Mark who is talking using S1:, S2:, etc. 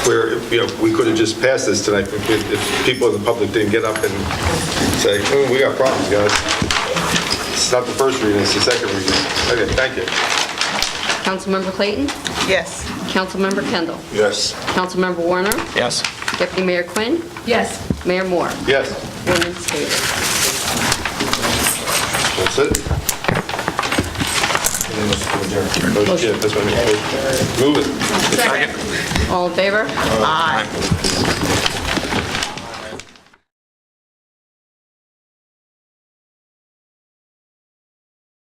S1: where, you know, we could have just passed this tonight if- if if people in the public didn't get up and say, "Oh, we got problems, guys. It's not the first reading, it's the second reading. Okay, thank you.
S2: Councilmember Clayton?
S3: Yes.
S2: Councilmember Kendall?
S1: Yes.
S2: Councilmember Warner?
S4: Yes.
S2: Deputy Mayor Quinn?
S5: Yes.
S2: Mayor Moore?
S1: Yes,
S2: Ordinance stated.
S1: that's it. Yeah, that's what I mean. Move it.
S5: Second.
S2: All in favor?
S3: Aye.